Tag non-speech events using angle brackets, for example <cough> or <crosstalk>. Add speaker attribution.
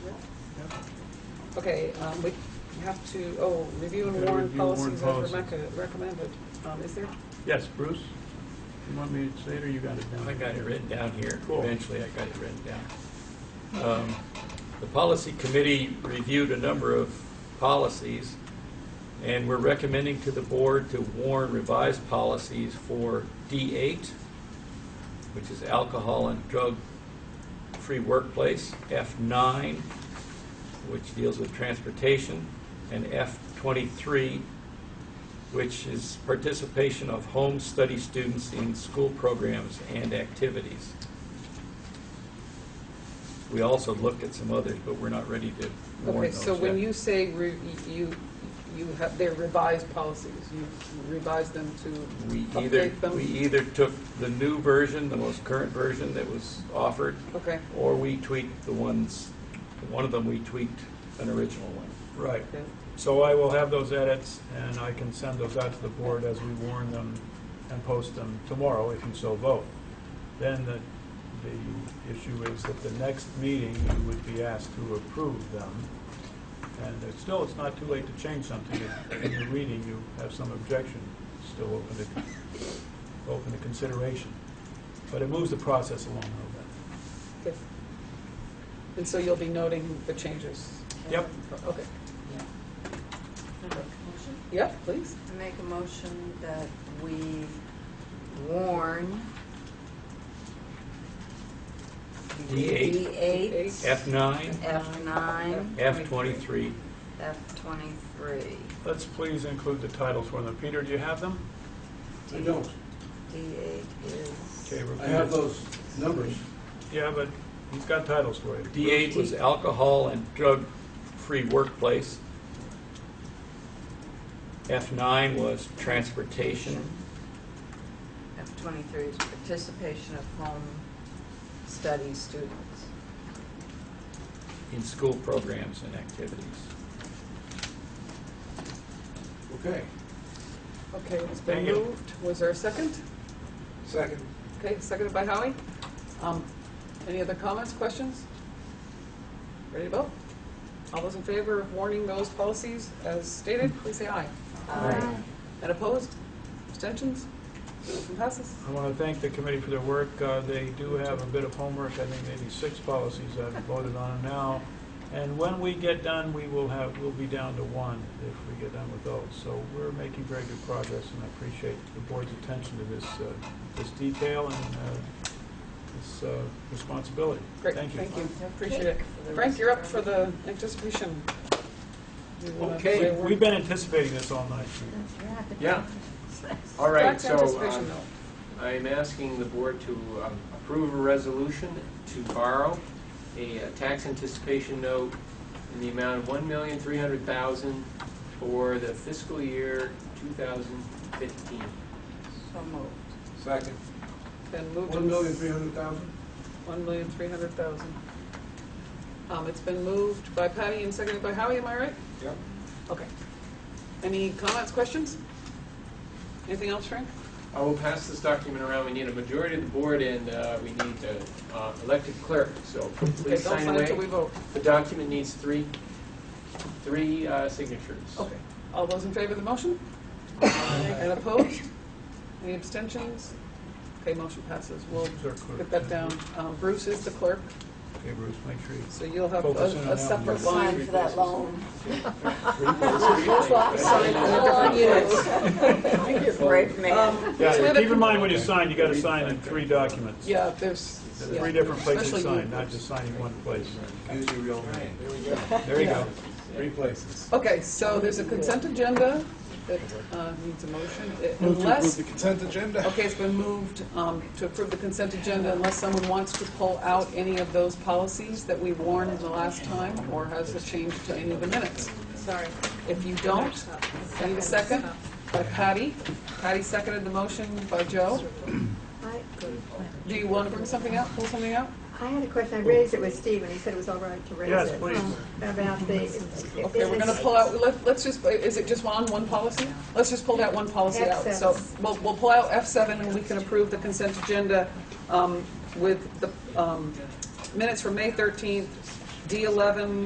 Speaker 1: Okay, um, we have to, oh, review and
Speaker 2: Gotta
Speaker 1: warn
Speaker 2: review and warn
Speaker 1: policies as
Speaker 2: policies.
Speaker 1: Rebecca recommended. Um, Is there?
Speaker 2: Yes, Bruce, you want me to say it, or you got it down?
Speaker 3: I got it written down here.
Speaker 2: Cool.
Speaker 3: Eventually, I got it written down. Um, The policy committee reviewed a number of policies, and we're recommending to the board to warn revised policies for D8, which is alcohol and drug-free workplace, F9, which deals with transportation, and F23, which is participation of home study students in school programs and activities. We also looked at some others, but we're not ready to warn
Speaker 1: Okay,
Speaker 3: those
Speaker 1: so when
Speaker 3: yet.
Speaker 1: you say re- you, you have, they're revised policies, you revised them to
Speaker 3: We either,
Speaker 1: update them?
Speaker 3: we
Speaker 2: e-,
Speaker 3: either took the new version, the most current version that was offered,
Speaker 1: Okay,
Speaker 3: or we tweaked the ones, one of them we tweaked an original one.
Speaker 2: Right,
Speaker 1: okay.
Speaker 2: so I will have those edits, and I can send those out to the board as we warn them and post them tomorrow, if you so vote. Then the, the issue is that the next meeting, you would be asked to approve them. And it's still, it's not too late to change something. If in your reading you have some objection, it's still open to, open to consideration. But it moves the process along a little bit.
Speaker 1: Okay. And so you'll be noting the changes?
Speaker 2: Yep.
Speaker 1: Okay,
Speaker 4: Motion?
Speaker 1: yeah, please.
Speaker 4: I Make a motion that we warn.
Speaker 3: D8.
Speaker 1: Eight.
Speaker 4: D8,
Speaker 3: F9,
Speaker 4: F9,
Speaker 3: F23,
Speaker 4: F23.
Speaker 2: Let's please include the titles for them. Peter, do you have them?
Speaker 5: I don't.
Speaker 4: D8
Speaker 2: Okay,
Speaker 4: is,
Speaker 2: repeat
Speaker 5: I have
Speaker 2: it.
Speaker 5: those numbers.
Speaker 2: Yeah, but he's got titles for you.
Speaker 3: D8 was alcohol and drug-free workplace. F9 was transportation.
Speaker 4: F23 is participation of home study students.
Speaker 3: in school programs and activities.
Speaker 5: Okay,
Speaker 1: Okay, it's been
Speaker 2: Thank you.
Speaker 1: moved. Was there a second?
Speaker 5: second.
Speaker 1: Okay, seconded by Howie. Um, Any other comments, questions? Ready to vote? All those in favor of warning those policies as stated, please say aye.
Speaker 4: Aye.
Speaker 1: And opposed? Abstentions? Motion passes.
Speaker 2: I want to thank the committee for their work. Uh, They do have a bit of homework, I think maybe six policies I've voted on now. And when we get done, we will have, we'll be down to one if we get done with those. So we're making very good progress, and I appreciate the board's attention to this, uh, this detail and uh, this uh, responsibility.
Speaker 1: Great,
Speaker 2: Thank you.
Speaker 1: thank you. Appreciate it. Frank, you're up for the anticipation. You wanna say a
Speaker 2: Okay,
Speaker 1: word?
Speaker 2: we've been anticipating this all night.
Speaker 6: Yeah. All right,
Speaker 1: That's
Speaker 6: so
Speaker 1: anticipation,
Speaker 6: um,
Speaker 1: though.
Speaker 6: I'm asking the board to um, approve a resolution to borrow a uh, tax anticipation note in the amount of $1,300,000 for the fiscal year 2015.
Speaker 4: So moved.
Speaker 5: Second.
Speaker 1: Been moved.
Speaker 5: One million, three hundred thousand?
Speaker 1: One million, three hundred thousand. Um, it's been moved by Patty and seconded by Howie, am I right?
Speaker 5: Yep.
Speaker 1: Okay. Any comments, questions? Anything else, Frank?
Speaker 6: I will pass this document around. We need a majority of the board, and uh, we need an elected clerk, so
Speaker 1: Okay,
Speaker 6: please
Speaker 1: don't
Speaker 6: sign
Speaker 1: sign until we
Speaker 6: away.
Speaker 1: vote.
Speaker 6: The document needs three, three uh, signatures.
Speaker 1: Okay. All those in favor of the motion? And opposed? Any abstentions? Okay, motion passes. We'll get that down. Um, Bruce is the clerk,
Speaker 2: Okay, Bruce, make sure you
Speaker 1: so you'll have a
Speaker 2: Focus in on that
Speaker 1: a
Speaker 2: one.
Speaker 1: separate
Speaker 2: Sign
Speaker 1: line.
Speaker 4: for that loan.
Speaker 1: <laughs> Sign for the different units.
Speaker 4: Great man.
Speaker 1: Um,
Speaker 2: Yeah,
Speaker 1: so we have
Speaker 2: keep
Speaker 1: a-
Speaker 2: in mind when you sign, you gotta sign in three documents.
Speaker 1: Yeah, there's.
Speaker 2: There's
Speaker 1: yeah.
Speaker 2: Three different places to
Speaker 1: Especially you,
Speaker 2: sign, not
Speaker 1: Bruce.
Speaker 2: just signing one place.
Speaker 5: Use your real name. There we go.
Speaker 2: There you go.
Speaker 5: Three places.
Speaker 1: Okay, so there's a consent agenda that uh, needs a motion, It-
Speaker 5: Move to approve
Speaker 1: unless,
Speaker 5: the consent agenda.
Speaker 1: okay, it's been moved um, to approve the consent agenda unless someone wants to pull out any of those policies that we warned the last time, or has a change to any of the minutes.
Speaker 7: Sorry.
Speaker 1: If you don't, need a second by Patty. Patty seconded the motion by Joe.
Speaker 8: I
Speaker 1: Do you want to bring something up, pull something out?
Speaker 8: I had a question, I raised it with Steve, and he said it was all right to raise it.
Speaker 2: Yes, please.
Speaker 8: um, About the...
Speaker 1: Okay, we're going to pull out, let- let's just, is it just on one policy? Let's just pull that one policy out. So we'll we'll pull out F7, and we can approve the consent agenda um, with the um, minutes from May 13th, D11,